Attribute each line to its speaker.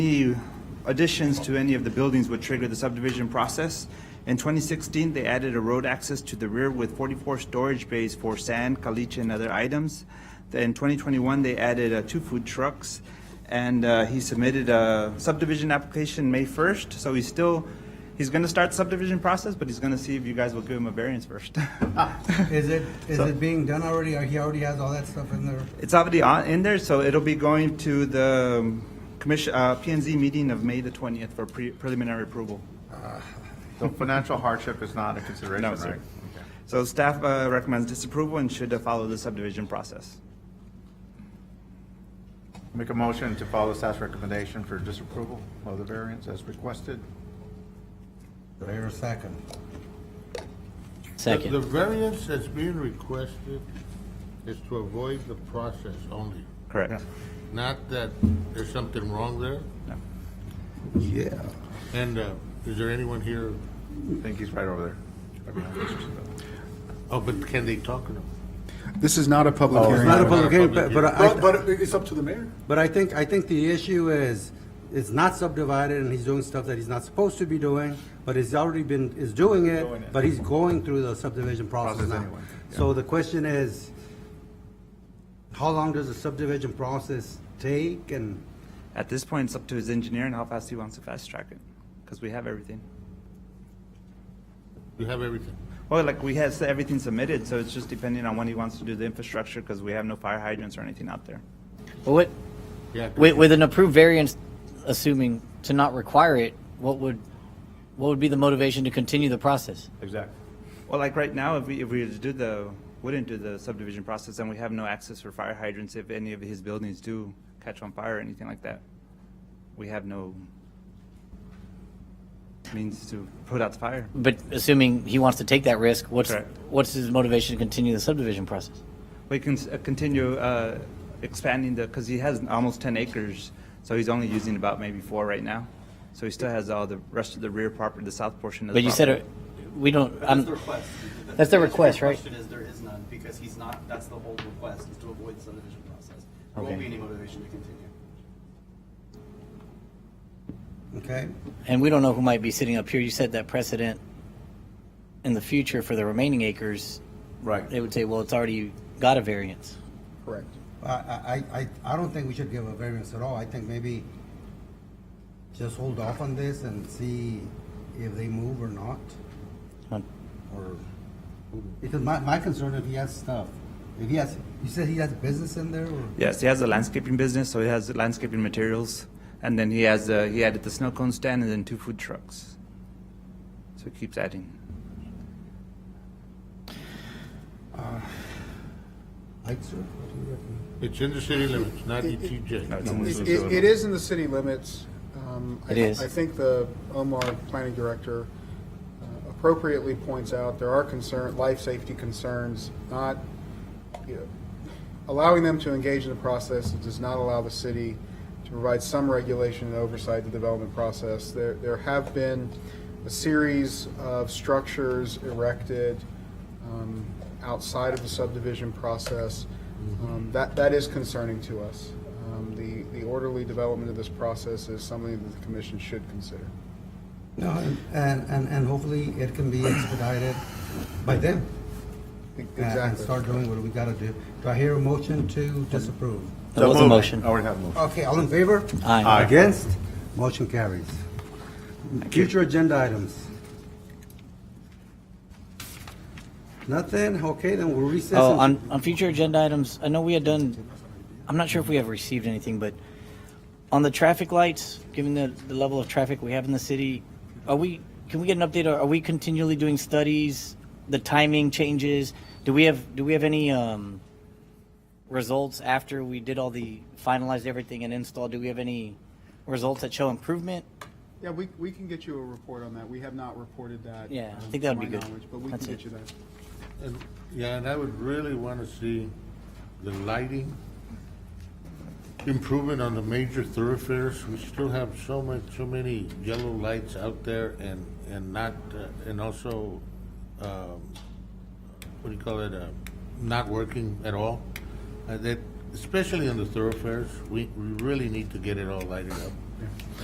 Speaker 1: Any additions to any of the buildings would trigger the subdivision process. In 2016, they added a road access to the rear with 44 storage bays for sand, caliche, and other items. Then In 2021, they added uh, two food trucks, and uh, he submitted a subdivision application May 1st, so he's still, he's going to start subdivision process, but he's going to see if you guys will give him a variance first.
Speaker 2: Is it, is it being done already, or he already has all that stuff in there?
Speaker 1: It's already on, in there, so it'll be going to the um, commission, uh, P and Z meeting of May the 20th for pre- preliminary approval.
Speaker 3: So financial hardship is not a consideration,
Speaker 1: No,
Speaker 3: right?
Speaker 1: sir.
Speaker 3: Okay.
Speaker 1: So staff uh, recommends disapproval and should uh, follow the subdivision process.
Speaker 3: Make a motion to follow staff's recommendation for disapproval of the variance as requested.
Speaker 2: Do I hear a second?
Speaker 4: The
Speaker 5: Second.
Speaker 4: variance that's being requested is to avoid the process only,
Speaker 1: Correct.
Speaker 4: not that there's something wrong there.
Speaker 2: Yeah.
Speaker 4: And uh, is there anyone here?
Speaker 3: I think he's right over there.
Speaker 4: Oh, but can they talk to them?
Speaker 6: This is Oh, not a public
Speaker 2: It's not a
Speaker 6: hearing.
Speaker 2: public hearing, but, but I,
Speaker 6: But it's up to the mayor.
Speaker 2: but I think, I think the issue is, it's not subdivided, and he's doing stuff that he's not supposed to be doing, but he's already been, is doing
Speaker 3: Doing
Speaker 2: it,
Speaker 3: it.
Speaker 2: but he's going through the subdivision process
Speaker 3: Process
Speaker 2: now.
Speaker 3: anyway,
Speaker 2: So the question is, how long does the subdivision process take, and
Speaker 1: At this point, it's up to his engineer and how fast he wants to fast track it, because we have everything.
Speaker 4: You have everything.
Speaker 1: Well, like, we have everything submitted, so it's just depending on when he wants to do the infrastructure, because we have no fire hydrants or anything out there.
Speaker 5: What,
Speaker 4: Yeah. 'cause
Speaker 5: with, with an approved variance, assuming to not require it, what would, what would be the motivation to continue the process?
Speaker 3: Exactly.
Speaker 1: Well, like right now, if we, if we were to do the, wouldn't do the subdivision process, then we have no access for fire hydrants if any of his buildings do catch on fire or anything like that. We have no means to put out the fire.
Speaker 5: But assuming he wants to take that risk, what's,
Speaker 1: Correct.
Speaker 5: what's his motivation to continue the subdivision process?
Speaker 1: We can s- uh, continue uh, expanding the, because he has almost 10 acres, so he's only using about maybe four right now. So he still has all the rest of the rear property, the south portion of the
Speaker 5: But you said,
Speaker 1: property.
Speaker 5: uh, we don't, I'm,
Speaker 7: That's the request.
Speaker 5: Um, That's the request, right?
Speaker 7: The question is, there is none, because he's not, that's the whole request, is to avoid the subdivision process. There
Speaker 5: Okay.
Speaker 7: won't be any motivation to continue.
Speaker 2: okay?
Speaker 5: and we don't know who might be sitting up here, you said that precedent in the future for the remaining acres,
Speaker 3: Right.
Speaker 5: they would say, well, it's already got a variance.
Speaker 6: Correct.
Speaker 2: I, I, I I don't think we should give a variance at all. I think maybe just hold off on this and see if they move or not,
Speaker 5: Huh.
Speaker 2: or, because my, my concern if he has stuff, if he has, you said he has business in there, or?
Speaker 1: Yes, he has a landscaping business, so he has landscaping materials, and then he has, uh, he added the snow cone stand and then two food trucks. So he keeps adding.
Speaker 2: Like, sir, what do you reckon?
Speaker 4: It's in the city limits, not E ETJ.
Speaker 6: It it is in the city limits. Um, I-
Speaker 5: It is.
Speaker 6: I think the Omar Planning Director uh, appropriately points out there are concern, life safety concerns, not, you know, allowing them to engage in the process does not allow the city to provide some regulation and oversight of the development process. There, there have been a series of structures erected um, outside of the subdivision process. Um, That, that is concerning to us. Um, The, the orderly development of this process is something that the commission should consider. E-,
Speaker 2: No, and, and, and hopefully it can be expedited by them.
Speaker 6: E-
Speaker 2: and- And
Speaker 6: Exactly.
Speaker 2: start doing what we gotta do. Do I hear a motion to disapprove?
Speaker 5: That was a motion.
Speaker 3: I already have a motion.
Speaker 2: Okay, all in favor?
Speaker 5: Aye.
Speaker 3: Aye.
Speaker 2: Against? Motion carries. Future agenda items. Nothing? Okay, then we'll recess.
Speaker 5: Oh,
Speaker 2: and-
Speaker 5: on, on future agenda items, I know we had done, I'm not sure if we have received anything, but on the traffic lights, given the, the level of traffic we have in the city, are we, can we get an update? Are are we continually doing studies? The timing changes? Do we have, do we have any, um, results after we did all the, finalized everything and installed? Do we have any results that show improvement?
Speaker 6: Yeah, we, we can get you a report on that. We have not reported that.
Speaker 5: Yeah, I
Speaker 6: um,
Speaker 5: think that
Speaker 6: to
Speaker 5: would be
Speaker 6: my
Speaker 5: good.
Speaker 6: knowledge, But we can
Speaker 5: That's
Speaker 6: get
Speaker 5: it.
Speaker 6: you that.
Speaker 4: And, yeah, and I would really want to see the lighting improvement on the major thoroughfares. We still have so much, so many yellow lights out there and, and not, uh, and also, um, what do you call it, uh, not working at all. Uh, that, especially on the thoroughfares, we, we really need to get it all lighted up.